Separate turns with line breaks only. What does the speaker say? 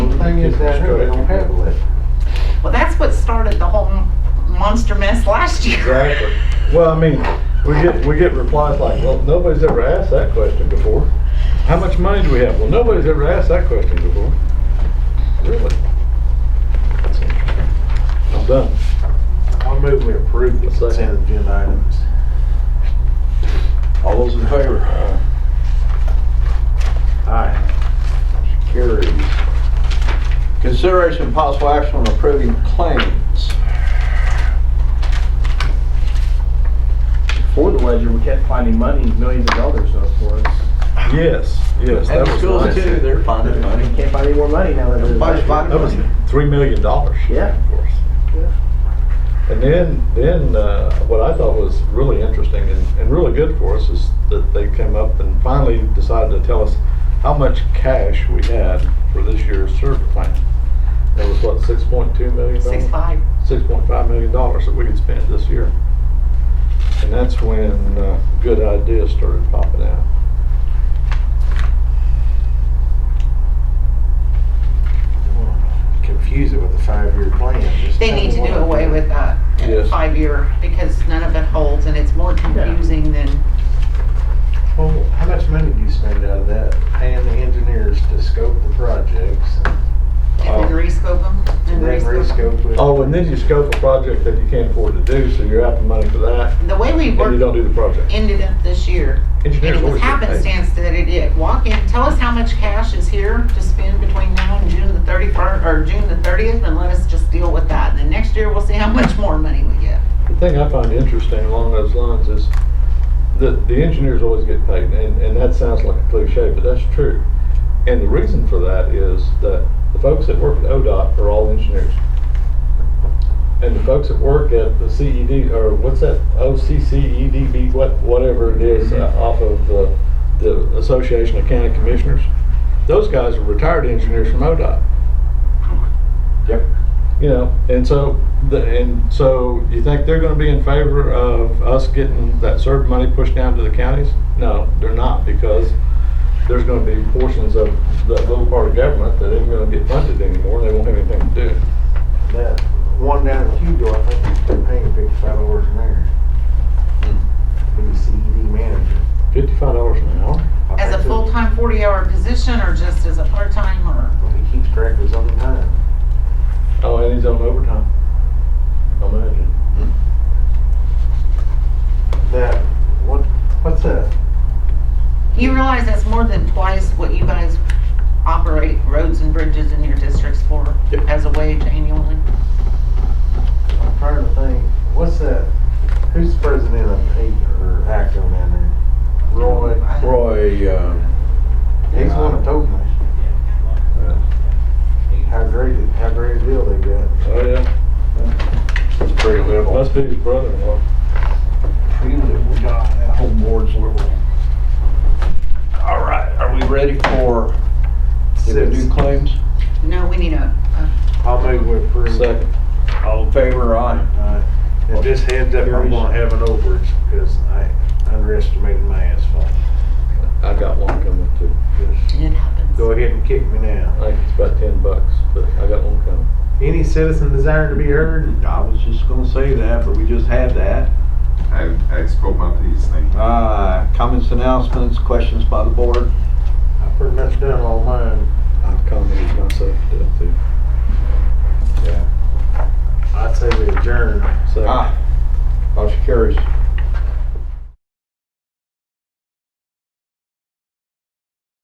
thing is down here, they don't have a list.
Well, that's what started the whole monster mess last year.
Exactly. Well, I mean, we get, we get replies like, well, nobody's ever asked that question before. How much money do we have? Well, nobody's ever asked that question before. Really? That's interesting. I'm done.
I'll move we approve the
Second.
consent agenda items. All those in favor? Aye. Motion Carries. Consideration and possible action on approving claims.
For the ledger, we kept finding money, millions of dollars though for us.
Yes, yes, that
And the
was
schools
nice.
too, they're finding money.
We can't find any more money now that
Everybody's finding
That was
money.
three million dollars.
Yeah.
Of course. And then, then uh, what I thought was really interesting and, and really good for us is that they came up and finally decided to tell us how much cash we had for this year's service plan. That was what, six point two million dollars?
Six five.
Six point five million dollars that we could spend this year. And that's when uh, good ideas started popping out.
Confuse it with the five-year plan. Just
They
tell
need
me
to
what
do
I'm
away
doing.
with that
Yes.
five year because none of it holds and it's more confusing than,
Well, how much money do you spend out of that? Paying the engineers to scope the projects
and then
Oh.
rescope them
and
and
then
rescope 'em.
rescope it.
Oh, and then you scope a project that you can't afford to do, so you're out the money for that,
The way we
and you don't
worked
do the project.
ended up this year, and
Engineers
it was
always get paid.
happenstance that it did. Walk in, tell us how much cash is here to spend between now and June the thirty-first, or June the thirtieth, and let us just deal with that. And then next year, we'll see how much more money we get.
The thing I find interesting along those lines is that the engineers always get paid, and, and that sounds like a cliche, but that's true. And the reason for that is that the folks that work at ODOT are all engineers. And the folks that work at the CED, or what's that, OCCEDB, E what, whatever it is, uh, off of the, the Association of County Commissioners, those guys are retired engineers from ODOT.
Yep.
you know, and so the, and so you think they're going to be in favor of us getting that CERB money pushed down to the counties? No, they're not because there's going to be portions of that little part of government that isn't going to get funded anymore. They won't have anything to do.
That one down at Hugo, I think he's been paying fifty-five dollars an hour. For the CED E manager.
Fifty-five dollars an hour.
I
As
think
a
that-
full-time forty-hour position, or just as a part-time, or?
Well, He keeps track of his own time.
Oh, and he's on overtime. Imagine.
That, what, what's that?
You realize that's more than twice what you guys operate roads and bridges in your districts for
Yep.
as a wage annually?
I'm trying to think, what's that? Who's the president of eight or ACO down there? Roy?
I-
Roy, um,
He's one of told me.
uh,
How great, it- how great a deal they got.
Oh yeah,
it's pretty liberal.
must be his brother-in-law.
Pretty liberal guy, that whole board's liberal. All right, are we ready for, did we do
Six.
claims?
No, we need a, a-
I'll move with approve.
Second.
All in favor, aye?
Alright. And just heads up, I'm gonna have an overage because I underestimated my asphalt.
I got one coming too.
Just
it happens.
Go ahead and kick me
I
now.
think it's about ten bucks, but I got one coming.
Any citizen desiring to be heard?
I was just gonna say that, but we just had that.
I, I spoke my piece, thank you.
Uh, comments, announcements, questions by the board?
I pretty much done all mine.
I've commented myself to death too.
I'd say we adjourn.
Second.
Ah,
Aye. Motion carries.